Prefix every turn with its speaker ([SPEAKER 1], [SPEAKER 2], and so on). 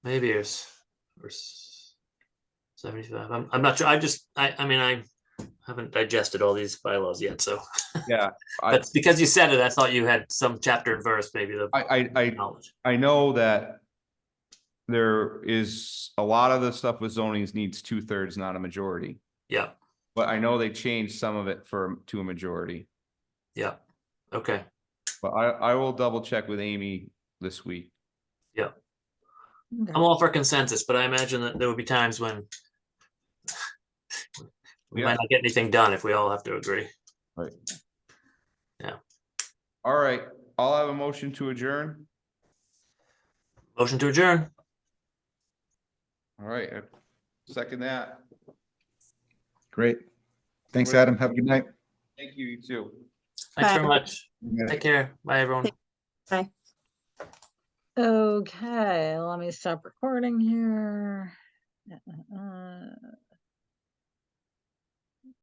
[SPEAKER 1] maybe it's or s- seventy-five. I'm, I'm not sure. I just, I, I mean, I haven't digested all these bylaws yet, so.
[SPEAKER 2] Yeah, I-
[SPEAKER 1] That's because you said it. I thought you had some chapter and verse, maybe the
[SPEAKER 2] I, I, I,
[SPEAKER 1] knowledge.
[SPEAKER 2] I know that there is, a lot of the stuff with zonings needs two thirds, not a majority.
[SPEAKER 1] Yeah,
[SPEAKER 2] But I know they changed some of it for, to a majority,
[SPEAKER 1] yeah. Okay,
[SPEAKER 2] but I, I will double check with Amy this week.
[SPEAKER 1] I'm all for consensus, but I imagine that there would be times when we
[SPEAKER 2] Yeah.
[SPEAKER 1] might not get anything done if we all have to agree.
[SPEAKER 2] All right, I'll have a motion to adjourn.
[SPEAKER 1] Motion to adjourn.
[SPEAKER 2] All right, I second that.
[SPEAKER 3] Great. Thanks,
[SPEAKER 2] Great.
[SPEAKER 3] Adam. Have a good night.
[SPEAKER 2] Thank you, you too.
[SPEAKER 1] Thanks very
[SPEAKER 4] Bye.
[SPEAKER 1] much. Take care. Bye, everyone.
[SPEAKER 4] Okay, let me stop recording here. Uh, uh, uh.